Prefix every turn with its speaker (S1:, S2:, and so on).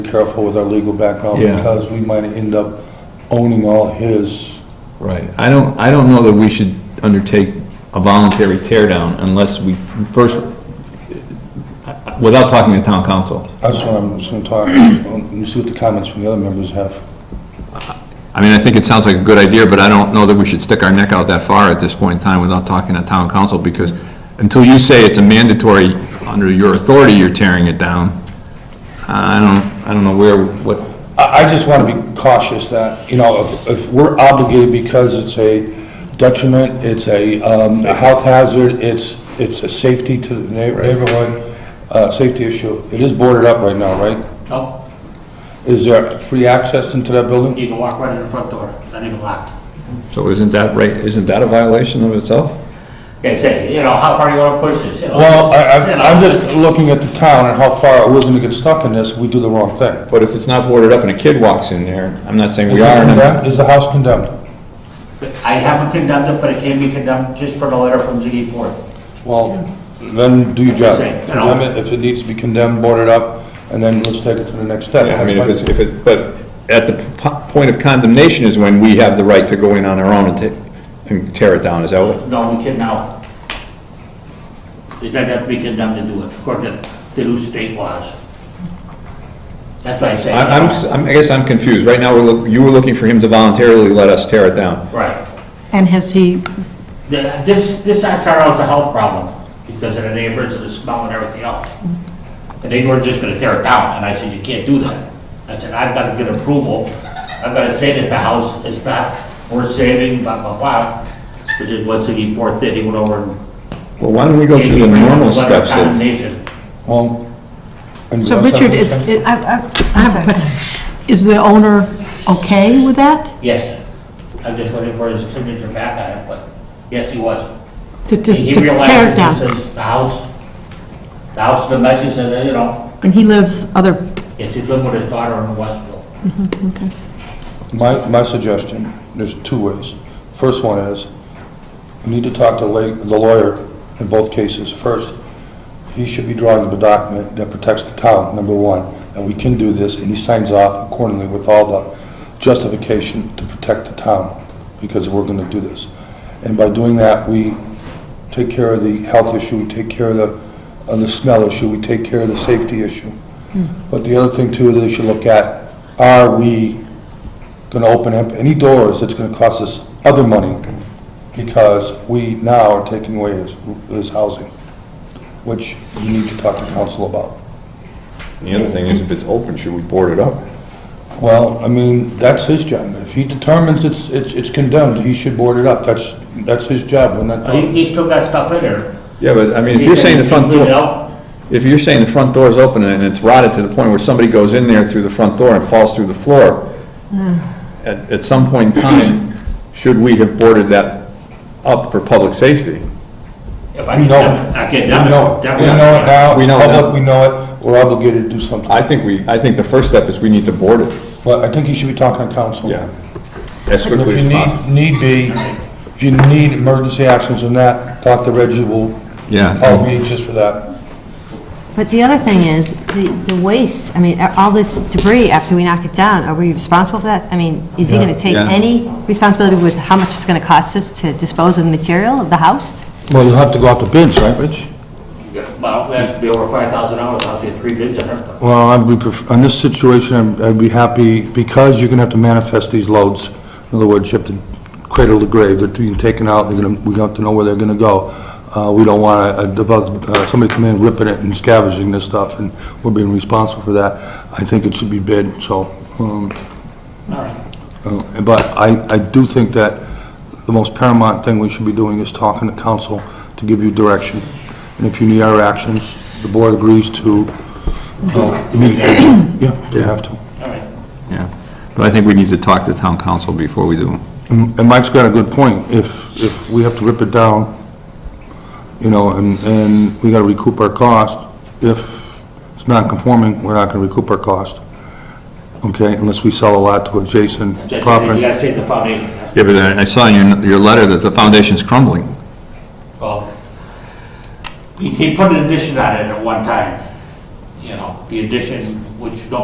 S1: careful with our legal background
S2: Yeah.
S1: because we might end up owning all his.
S2: Right, I don't, I don't know that we should undertake a voluntary tear down unless we first, without talking to town council.
S1: That's what I'm just gonna talk, and see what the comments from the other members have.
S2: I mean, I think it sounds like a good idea, but I don't know that we should stick our neck out that far at this point in time without talking to town council, because until you say it's a mandatory, under your authority, you're tearing it down, I don't, I don't know where, what,
S1: I, I just want to be cautious that, you know, if, if we're obligated because it's a detriment, it's a, um, a health hazard, it's, it's a safety to the neigh- neighborhood, uh, safety issue, it is boarded up right now, right?
S3: No,
S1: Is there free access into that building?
S3: you can walk right in the front door, it's not even locked.
S2: so isn't that right, isn't that a violation of itself?
S3: Yeah, say, you know, how far you wanna push this, you know?
S1: Well, I,
S3: You
S1: I,
S3: know,
S1: I'm just looking at the town and how far we're gonna get stuck in this, we do the wrong thing.
S2: But if it's not boarded up and a kid walks in there, I'm not saying we
S1: Is it
S2: are, and I'm-
S1: condemned? Is the house condemned?
S3: I haven't condemned it, but it can be condemned just for the letter from ZD Ford.
S1: Well, then do your job.
S3: Yes.
S1: Condemn it, if it needs to be condemned, board it up, and then let's take it to the next step.
S2: Yeah, I mean, if
S1: That's
S2: it's,
S1: my-
S2: if it, but at the po- point of condemnation is when we have the right to go in on our own and take, and tear it down, is that what?
S3: No, we can now. It doesn't have to be condemned to do it, according to the new state laws. That's what I say.
S2: I- I'm, s- I'm, I guess I'm confused. Right now, we're, look- you were looking for him to voluntarily let us tear it down.
S3: Right.
S4: And has he,
S3: The- This, this I started out as a health problem, because of the neighbors and the smell and everything else. And they were just gonna tear it down, and I said, you can't do that. I said, I've gotta get approval, I've gotta say that the house is not worth saving, blah, blah, blah. Which is what City Ford did, he went over and.
S2: Well, why don't we go through the normal
S3: Letter of
S2: steps of,
S3: Condemnation.
S1: Well. and
S4: so
S1: you have
S4: Richard,
S1: something to
S4: is,
S1: say?
S4: is- I have a question. Is the owner okay with that?
S3: Yes, I'm just waiting for his signature back on it, but, yes, he was.
S4: To just
S3: He
S4: to
S3: realized
S4: tear
S3: it
S4: it down?
S3: says The house, the house, the message, and, you know,
S4: And he lives other,
S3: yes, he's living with his daughter in Westville.
S1: My, my suggestion, there's two ways. First one is, we need to talk to la- the lawyer in both cases. First, he should be drawing up a document that protects the town, number one, that we can do this, and he signs off accordingly with all the justification to protect the town, because we're gonna do this. And by doing that, we take care of the health issue, we take care of the, of the smell issue, we take care of the safety issue. But the other thing too, they should look at, are we gonna open up any doors that's gonna cost us other money? Because we now are taking away his, his housing, which you need to talk to council about.
S2: the other thing is if it's open, should we board it up?
S1: Well, I mean, that's his job. If he determines it's, it's it's condemned, he should board it up. That's, that's his job. We're not,
S3: Uh, He, he still got stuff in there.
S2: Yeah, but I mean, if you're saying the front
S3: He cleaned it
S2: door,
S3: out.
S2: if you're saying the front door is open and it's rotted to the point where somebody goes in there through the front door and falls through the floor, at, at some point in time, should we have boarded that up for public safety?
S3: If I
S1: we
S3: can,
S1: know it.
S3: I can,
S1: We know it. We
S3: definitely.
S1: know it now.
S2: We
S1: It's
S2: know it now.
S1: public, we know it. We're obligated to do something.
S2: I think we, I think the first step is we need to board it.
S1: But I think he should be talking to council.
S2: As
S1: And
S2: quickly
S1: If you
S2: as possible.
S1: need, need be, if you need emergency actions and that, Dr. Reggie will call
S2: Yeah.
S1: me just for that.
S5: But the other thing is, the the waste, I mean, a- all this debris after we knock it down, are we responsible for that? I mean, is he going to take
S2: Yeah.
S5: any responsibility with how much it's going to cost us to dispose of the material of the house?
S1: Well, you'll have to go out to bids, right, Rich?
S3: Well, it has to be over five thousand dollars, I'll get three bids on it.
S1: Well, I'd be, pref- on this situation, I'm- I'd be happy, because you're gonna have to manifest these loads. In other words, you have to cradle the grave, they're being taken out, they're gonna, we have to know where they're gonna go. Uh, we don't want a, develop, uh, somebody come in ripping it and scavenging this stuff, and we're being responsible for that. I think it should be bid, so, um,
S3: All right.
S1: Uh, But I, I do think that the most paramount thing we should be doing is talking to council to give you direction. And if you need our actions, the board agrees to uh, meet. Yeah, they have to.
S3: All right.
S2: Yeah, but I think we need to talk to town council before we do.
S1: And and Mike's got a good point. If, if we have to rip it down, you know, and, and we gotta recoup our cost, if it's non-conforming, we're not gonna recoup our cost. Okay, unless we sell a lot to adjacent
S3: Just- You
S1: property.
S3: gotta save the foundation. that's-
S2: Yeah, but I I saw in your, your letter that the foundation's crumbling.
S3: Well, he, he put an addition on it at one time, you know, the addition, which don't